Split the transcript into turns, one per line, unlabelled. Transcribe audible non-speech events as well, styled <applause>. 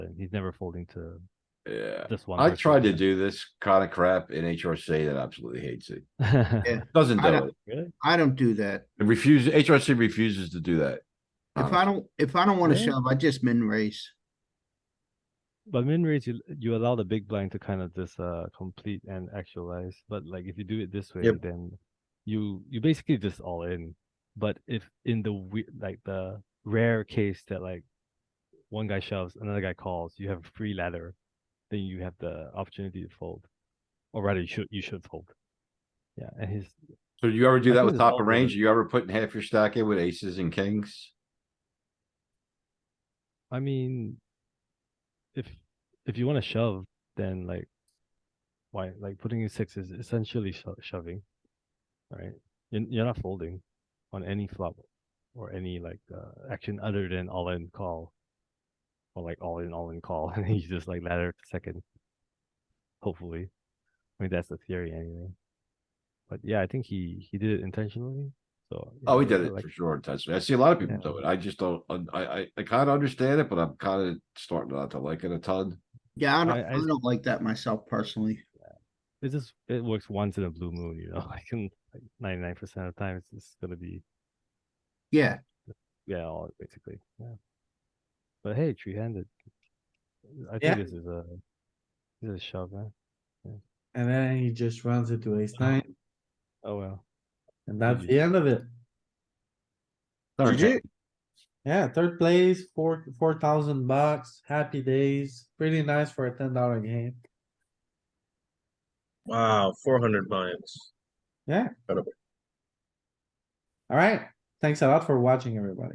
and he's never folding to
Yeah,
this one.
I
versus
tried
<laughs>
to
that.
do this kind of crap in HRC that absolutely hates it.
Yeah.
Doesn't
I
do
don't-
it.
Really?
I don't do that.
It refuses, HRC refuses to do that.
If
Honest.
I don't, if I don't wanna
Yeah.
shove, I just min raise.
But min raise, you you allow the big blind to kind of just uh complete and actualize. But like if you do it this way,
Yep.
then you you basically just all in. But if in the we like the rare case that like one guy shoves, another guy calls, you have a free ladder, then you have the opportunity to fold, or rather you should you should fold. Yeah, and his
So you ever do
I
that
think
with
it's
top
all
of range?
good.
You ever putting half your stack in with aces and kings?
I mean, if if you want to shove, then like, why like putting in six is essentially sho- shoving, right? You're, you're not folding on any flop or any like uh, action other than all in call, or like all in all in call, <laughs> and then you just like ladder to second. Hopefully, I mean that's the theory anyway. But yeah, I think he he did it intentionally. So yeah,
Oh, he
I-
did
I
it
like-
for sure. intentionally. I see a lot of people
Yeah.
do it. I just don't, I, I, I kind of understand it, but I'm kind of starting not to like it a ton.
Yeah, I don't,
I-
I
I-
don't like that myself personally.
it just it works once in a blue moon, you know. <laughs> I can like ninety nine percent of the time it's just gonna be
Yeah,
yeah, all basically. Yeah. But hey, three handed. I think
Yeah.
this is a this is a shove, man.
And then he just runs into ace nine,
Oh well.
and that's the end of it.
Third
GG.
hand.
Yeah, third place, four, four thousand bucks, happy days, pretty nice for a ten dollar game.
Wow, four hundred bucks.
Yeah.
Incredible.
Alright, thanks a lot for watching, everybody.